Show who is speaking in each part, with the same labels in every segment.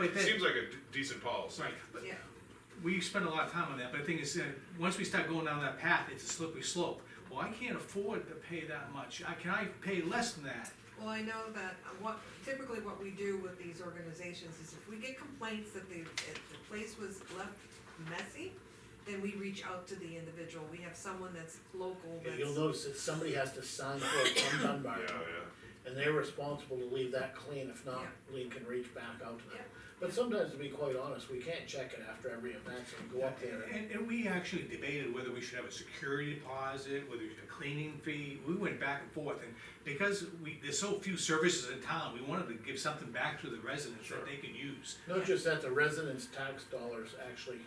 Speaker 1: But that-
Speaker 2: Seems like a d- decent policy.
Speaker 1: Right, but
Speaker 3: Yeah.
Speaker 1: we spend a lot of time on that, but the thing is, uh, once we start going down that path, it's a slippery slope. Well, I can't afford to pay that much, I, can I pay less than that?
Speaker 3: Well, I know that uh, what, typically what we do with these organizations is if we get complaints that the, if the place was left messy, then we reach out to the individual, we have someone that's local,
Speaker 4: Yeah, You'll
Speaker 3: that's,
Speaker 4: notice that somebody has to sign for it from Dunbar,
Speaker 2: Yeah, yeah.
Speaker 4: and they're responsible to leave that clean, if not,
Speaker 3: Yeah.
Speaker 4: Lean can reach back out to
Speaker 3: Yeah.
Speaker 4: them. But sometimes, to be quite honest, we can't check it after every event, so we go up there and,
Speaker 1: And, and we actually debated whether we should have a security deposit, whether we should have a cleaning fee, we went back and forth, and because we, there's so few services in town, we wanted to give something back to the residents that
Speaker 2: Sure.
Speaker 1: they can use.
Speaker 4: not just that, the residents' tax dollars actually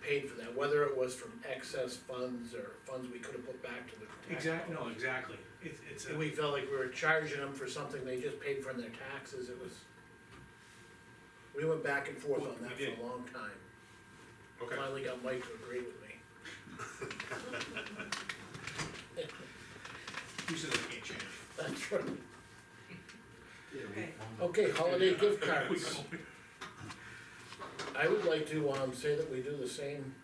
Speaker 4: paid for that, whether it was from excess funds or funds we could have put back to the tax.
Speaker 1: Exactly, no, exactly, it's, it's, a-
Speaker 4: And we felt like we were charging them for something they just paid for in their taxes, it was. We went back and forth on
Speaker 1: We
Speaker 4: that for
Speaker 1: did.
Speaker 4: a long time,
Speaker 2: Okay,
Speaker 4: finally got Mike to agree with me.
Speaker 1: we said that can't change.
Speaker 4: That's right.
Speaker 3: okay,
Speaker 4: Okay, holiday gift
Speaker 1: We
Speaker 4: cards.
Speaker 1: go-
Speaker 4: I would like to, um, say that we do the same.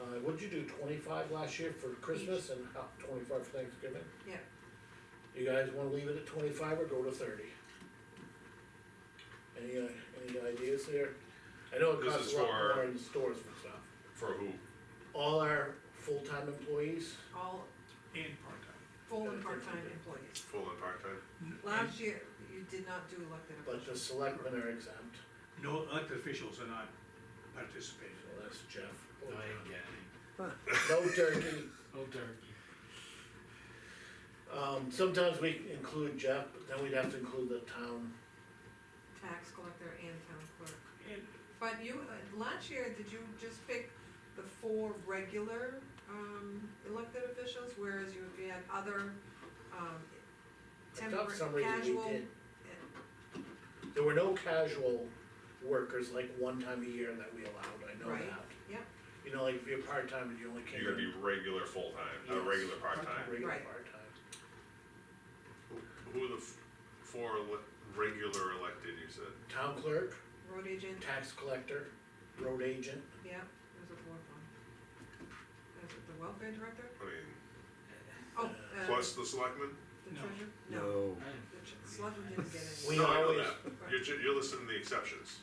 Speaker 4: Uh, what'd you do, twenty-five last year for Christmas and how, twenty-five for Thanksgiving?
Speaker 3: yeah.
Speaker 4: You guys wanna leave it at twenty-five or go to thirty? Any, uh, any ideas there? I know it
Speaker 2: This
Speaker 4: costs
Speaker 2: is
Speaker 4: a lot
Speaker 2: for-
Speaker 4: more in stores and stuff.
Speaker 2: for who?
Speaker 4: All our full-time employees,
Speaker 3: All
Speaker 1: And part-time.
Speaker 3: full and part-time employees.
Speaker 2: Full and part-time?
Speaker 3: Last year, you did not do elected
Speaker 4: but the
Speaker 3: officials.
Speaker 4: selectmen are exempt,
Speaker 1: No elected officials are not participating.
Speaker 4: so that's Jeff.
Speaker 2: Oh,
Speaker 5: No, I ain't getting
Speaker 4: No turkey.
Speaker 5: Oh, darn.
Speaker 4: Um, sometimes we include Jeff, but then we'd have to include the town.
Speaker 3: tax collector and town clerk.
Speaker 1: And
Speaker 3: But you, uh, last year, did you just pick the four regular, um, elected officials, whereas you you had other, um,
Speaker 4: I thought for some
Speaker 3: temporary,
Speaker 4: reason we
Speaker 3: casual?
Speaker 4: did. There were no casual workers like one time a year that we allowed, I know
Speaker 3: Right.
Speaker 4: that.
Speaker 3: Yep.
Speaker 4: You know, like if you're part-time and you only came
Speaker 2: You're gonna
Speaker 4: in
Speaker 2: be regular full-time, uh,
Speaker 4: Yes.
Speaker 2: regular part-time.
Speaker 4: regular
Speaker 3: Right.
Speaker 4: part-time.
Speaker 2: Who are the f- four ele- regular elected, you said?
Speaker 4: Town clerk,
Speaker 3: Road agent,
Speaker 4: tax collector, road agent,
Speaker 3: yeah, there's a fourth one. That's it, the welfare director?
Speaker 2: I mean,
Speaker 3: Oh, uh,
Speaker 2: plus the selectmen?
Speaker 3: the
Speaker 1: No.
Speaker 3: treasurer?
Speaker 5: I didn't-
Speaker 3: The tr- selectman didn't get any.
Speaker 4: We
Speaker 2: No, I know
Speaker 4: always-
Speaker 2: that. You're, ju- you're listing the exceptions.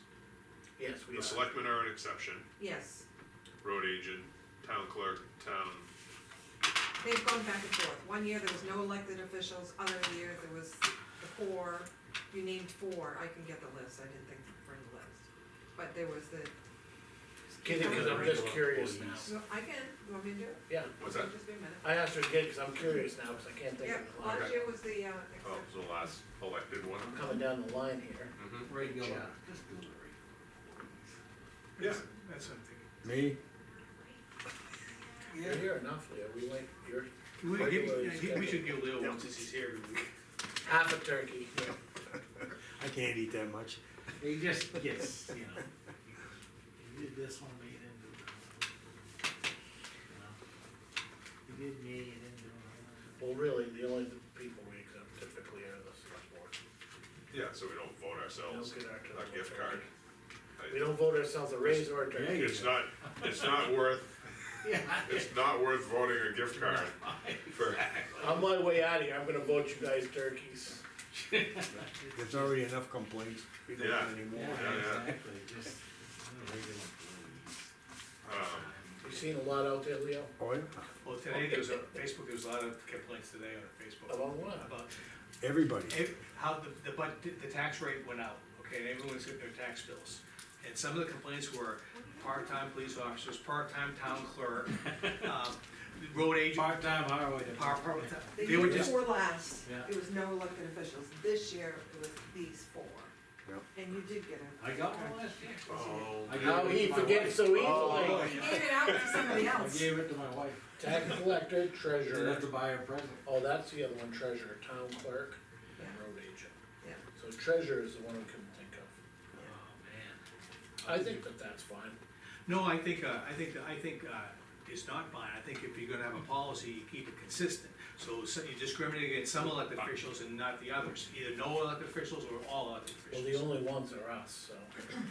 Speaker 4: yes, we
Speaker 2: The
Speaker 4: are,
Speaker 2: selectmen are an exception,
Speaker 3: Yes,
Speaker 2: road agent, town clerk, town,
Speaker 3: they've gone back and forth. One year, there was no elected officials, other year, there was the four, you named four, I can get the list, I didn't think to bring the list. But there was the,
Speaker 4: kidding, cause I'm just curious now,
Speaker 3: no, I can, you want me to do it?
Speaker 4: yeah.
Speaker 2: what's that?
Speaker 3: Just be a minute.
Speaker 4: I asked her again, cause I'm curious now, cause I can't think
Speaker 3: Yeah,
Speaker 4: of the line,
Speaker 3: last year was the, uh,
Speaker 2: Oh,
Speaker 3: exception.
Speaker 2: so the last elected one?
Speaker 4: I'm coming down the line here.
Speaker 2: Mm-hmm.
Speaker 5: Regular,
Speaker 4: Jeff.
Speaker 5: just do the regular.
Speaker 2: Yeah.
Speaker 1: That's something.
Speaker 6: Me?
Speaker 4: You're here enough, Leah, we like, you're
Speaker 1: We
Speaker 4: Like
Speaker 1: give,
Speaker 4: the
Speaker 1: I
Speaker 4: way it's
Speaker 1: think we
Speaker 4: scheduled.
Speaker 1: should give Leo one since he's here every week.
Speaker 4: half a turkey,
Speaker 6: I can't eat that much.
Speaker 5: They just, yes, you know. You did this one, but you didn't do that one. You know? You did me, you didn't do that
Speaker 4: well, really, the only people we exempt typically are the select board.
Speaker 2: Yeah, so we don't vote ourselves
Speaker 4: Don't get our turkey.
Speaker 2: a gift card. I-
Speaker 4: We don't vote ourselves a raise or a
Speaker 5: Yeah,
Speaker 4: turkey.
Speaker 5: you-
Speaker 2: It's not, it's not worth,
Speaker 5: Yeah.
Speaker 2: it's not worth voting a gift card for,
Speaker 4: On my way out of here, I'm gonna vote you guys turkeys.
Speaker 6: There's already enough complaints. We don't
Speaker 2: Yeah.
Speaker 6: want any more.
Speaker 2: Yeah, yeah.
Speaker 5: Yeah, exactly, just. no, regular.
Speaker 2: um,
Speaker 4: You seen a lot out there, Leo?
Speaker 6: Oh, yeah.
Speaker 1: Well, today there was a, Facebook, there was a lot of complaints today on Facebook.
Speaker 4: About what?
Speaker 1: About
Speaker 6: Everybody.
Speaker 1: ev- how the, the, but, the tax rate went out, okay, and everyone's getting their tax bills. And some of the complaints were part-time police officers, part-time town clerk, um, road agent,
Speaker 5: Part-time highway.
Speaker 1: par, par,
Speaker 3: They
Speaker 1: they were
Speaker 3: did
Speaker 1: just,
Speaker 3: four last,
Speaker 5: Yeah.
Speaker 3: there was no elected officials, this year it was these four.
Speaker 6: Yep.
Speaker 3: And you did get it.
Speaker 5: I got one last year.
Speaker 2: oh,
Speaker 5: I gave
Speaker 4: How
Speaker 5: it
Speaker 4: he
Speaker 5: to my
Speaker 4: forgets
Speaker 5: wife.
Speaker 4: so
Speaker 5: Oh,
Speaker 4: easily.
Speaker 3: He gave it out to somebody
Speaker 5: I
Speaker 3: else.
Speaker 5: gave it to my wife,
Speaker 4: Tax collector,
Speaker 5: didn't
Speaker 4: treasurer.
Speaker 5: have to buy her a present.
Speaker 4: Oh, that's the other one, treasurer, town clerk, and road agent.
Speaker 3: Yeah.
Speaker 4: So treasurer is the one we couldn't think of.
Speaker 5: Oh, man.
Speaker 4: I think that that's fine.
Speaker 1: no, I think, uh, I think, I think, uh, is not binding, I think if you're gonna have a policy, you keep it consistent. So so you discriminate against some elected officials and not the others, either no elected officials or all elected
Speaker 4: Well,
Speaker 1: officials.
Speaker 4: the only ones are us, so.